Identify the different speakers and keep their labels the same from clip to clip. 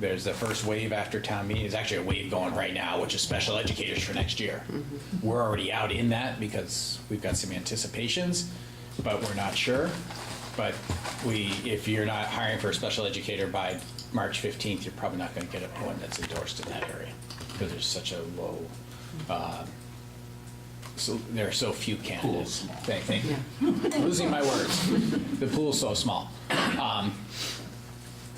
Speaker 1: There's the first wave after town meeting, there's actually a wave going right now, which is special educators for next year. We're already out in that because we've got some anticipations, but we're not sure. But we, if you're not hiring for a special educator by March 15th, you're probably not going to get a- one that's endorsed in that area because there's such a low, uh, so, there are so few candidates. Thank, thank you. Losing my words. The pool's so small. Um,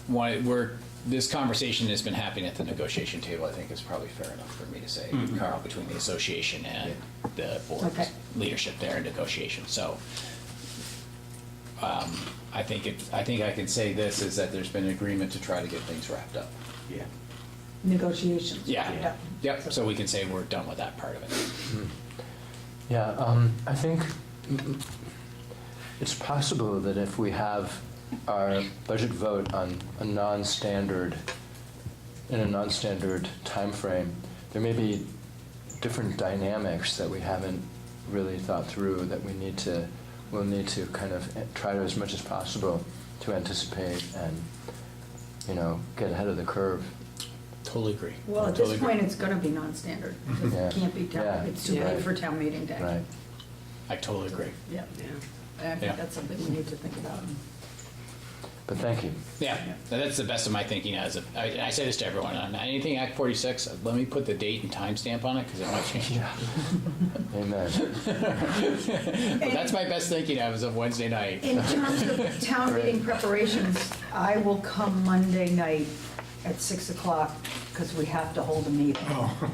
Speaker 1: why, we're, this conversation has been happening at the negotiation table, I think is probably fair enough for me to say, Carl, between the association and the
Speaker 2: Okay.
Speaker 1: board's leadership there in negotiation. So um, I think it, I think I can say this, is that there's been an agreement to try to get things wrapped up.
Speaker 3: Yeah.
Speaker 2: negotiations.
Speaker 1: Yeah, yep, so we can say we're done with that part of it.
Speaker 4: Yeah, um, I think mm, it's possible that if we have our budget vote on a non-standard, in a non-standard timeframe, there may be different dynamics that we haven't really thought through that we need to, we'll need to kind of try to, as much as possible, to anticipate and, you know, get ahead of the curve.
Speaker 1: Totally agree.
Speaker 2: Well, at
Speaker 1: Totally
Speaker 2: this
Speaker 1: agree.
Speaker 2: point, it's gonna be non-standard.
Speaker 4: Yeah.
Speaker 2: It can't be
Speaker 4: Yeah.
Speaker 2: town, it's too
Speaker 4: Yeah.
Speaker 2: late for town meeting day.
Speaker 4: Right.
Speaker 1: I totally agree.
Speaker 2: Yeah, I
Speaker 1: Yeah.
Speaker 2: think that's something we need to think about.
Speaker 4: But thank you.
Speaker 1: Yeah, that's the best of my thinking as of, I, I say this to everyone, on anything Act 46, let me put the date and timestamp on it because it might change.
Speaker 4: Amen.
Speaker 1: But that's my best thinking as of Wednesday night.
Speaker 2: In terms of town meeting preparations, I will come Monday night at 6 o'clock, because we have to hold a meeting.
Speaker 4: Oh.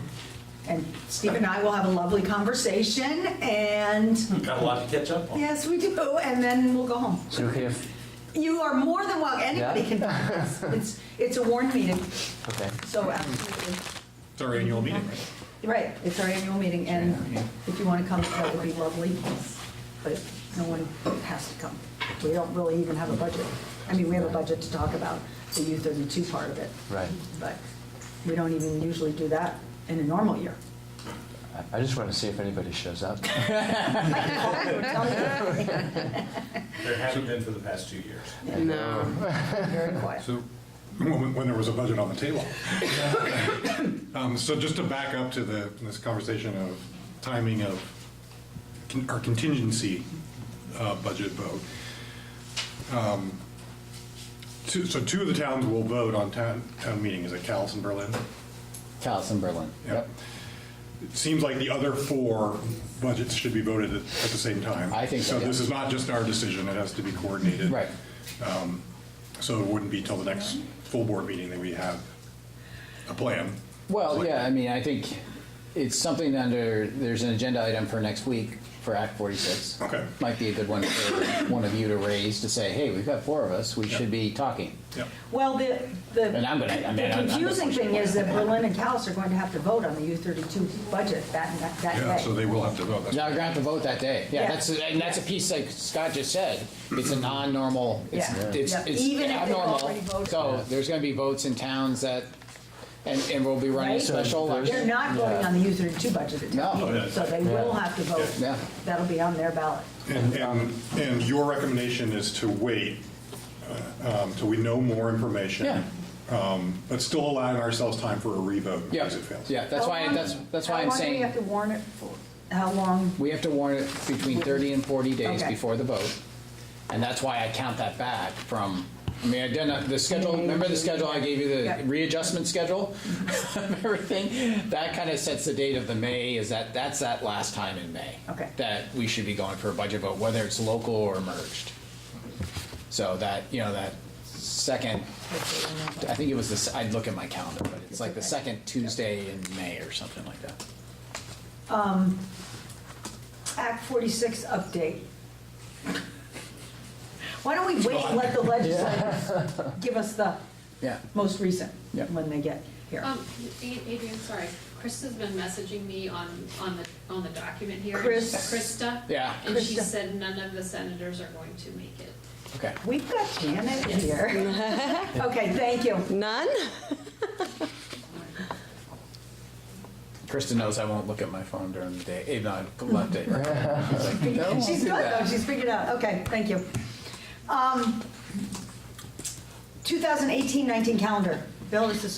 Speaker 2: And Steve and I will have a lovely conversation, and,
Speaker 3: Got a lot to catch up on.
Speaker 2: yes, we do, and then we'll go home.
Speaker 4: Is it okay if,
Speaker 2: You are more than welcome, anybody can, it's- it's, it's a warned meeting,
Speaker 4: okay.
Speaker 2: so absolutely.
Speaker 5: It's our annual meeting, right?
Speaker 2: Right, it's our annual meeting, and if you want to come, that would be lovely, but no one has to come. We don't really even have a budget. I mean, we have a budget to talk about, the U-32 part of it.
Speaker 4: Right.
Speaker 2: But we don't even usually do that in a normal year.
Speaker 4: I- I just want to see if anybody shows up.
Speaker 3: There haven't been for the past two years.
Speaker 2: Very quiet.
Speaker 5: So, when, when there was a budget on the table. Um, so just to back up to the, this conversation of timing of con- our contingency, uh, budget vote. Um, Two, so two of the towns will vote on town, town meeting, is it Callis and Berlin?
Speaker 1: Callis and Berlin.
Speaker 5: Yep. It seems like the other four budgets should be voted at, at the same time.
Speaker 1: I think so,
Speaker 5: So this
Speaker 1: yeah.
Speaker 5: is not just our decision, it has to be coordinated.
Speaker 1: Right.
Speaker 5: So it wouldn't be till the next full board meeting that we have a plan.
Speaker 1: Well, yeah, I mean, I think it's something under, there's an agenda item for next week for Act 46.
Speaker 5: Okay.
Speaker 1: Might be a good one for one of you to raise to say, hey, we've got four of us, we should be talking.
Speaker 5: Yep.
Speaker 2: Well, the, the
Speaker 1: And I'm gonna- I mean,
Speaker 2: the
Speaker 1: I'm- I'm-
Speaker 2: confusing thing is that Berlin and Callis are going to have to vote on the U-32 budget that, that day.
Speaker 5: Yeah, so they will have to vote. That's-
Speaker 1: Now, you're gonna have to vote that day. Yeah,
Speaker 2: Yeah.
Speaker 1: that's, and that's a piece like Scott just said, it's a non-normal, it's,
Speaker 2: Yeah.
Speaker 1: it's
Speaker 2: Yeah.
Speaker 1: it's
Speaker 2: Even if they've already
Speaker 1: abnormal.
Speaker 2: voted.
Speaker 1: So there's gonna be votes in towns that, and, and we'll be running a
Speaker 2: Right?
Speaker 1: special
Speaker 4: So there's-
Speaker 2: They're
Speaker 1: election.
Speaker 2: not voting on the U-32 budget at
Speaker 1: No.
Speaker 2: town meeting, so they will have to
Speaker 1: Yeah.
Speaker 2: vote. That'll be on their ballot.
Speaker 5: And, and,
Speaker 1: um,
Speaker 5: and your recommendation is to wait uh, um, till we know more information.
Speaker 1: Yeah.
Speaker 5: um, But still allowing ourselves time for a revote in
Speaker 1: Yeah,
Speaker 5: case it fails.
Speaker 1: yeah, that's
Speaker 2: How
Speaker 1: why,
Speaker 2: long-
Speaker 1: that's, that's why I'm saying.
Speaker 2: How long do we have to warn it for? How long?
Speaker 1: We have to warn it between 30 and 40 days
Speaker 2: Okay.
Speaker 1: before the vote, and that's why I count that back from, I mean, I done, the schedule, remember the schedule I gave you,
Speaker 2: Yeah. Mm-hmm.
Speaker 1: the readjustment schedule? Everything, that kind of sets the date of the May, is that, that's that last time in May.
Speaker 2: Okay.
Speaker 1: That we should be going for a budget vote, whether it's local or merged. So that, you know, that second, I think it was this, I'd look at my calendar, but it's like the second Tuesday in May or something like that.
Speaker 2: Act 46 update. Why don't we wait and let the legislators give us the
Speaker 1: Yeah.
Speaker 2: most recent,
Speaker 1: Yeah.
Speaker 2: when they get here?
Speaker 6: Um, A- Adrian, sorry, Chris has been messaging me on, on the, on the document here.
Speaker 2: Chris.
Speaker 6: Krista.
Speaker 1: Yeah.
Speaker 6: And she
Speaker 2: Krista.
Speaker 6: said none of the senators are going to make it.
Speaker 1: Okay.
Speaker 2: We've got Janet here. Okay, thank you.
Speaker 7: None?
Speaker 1: Krista knows I won't look at my phone during the day, even on left day.
Speaker 2: She's good though, she's figured it out, okay, thank you. Um, 2018-19 calendar. Bill, is this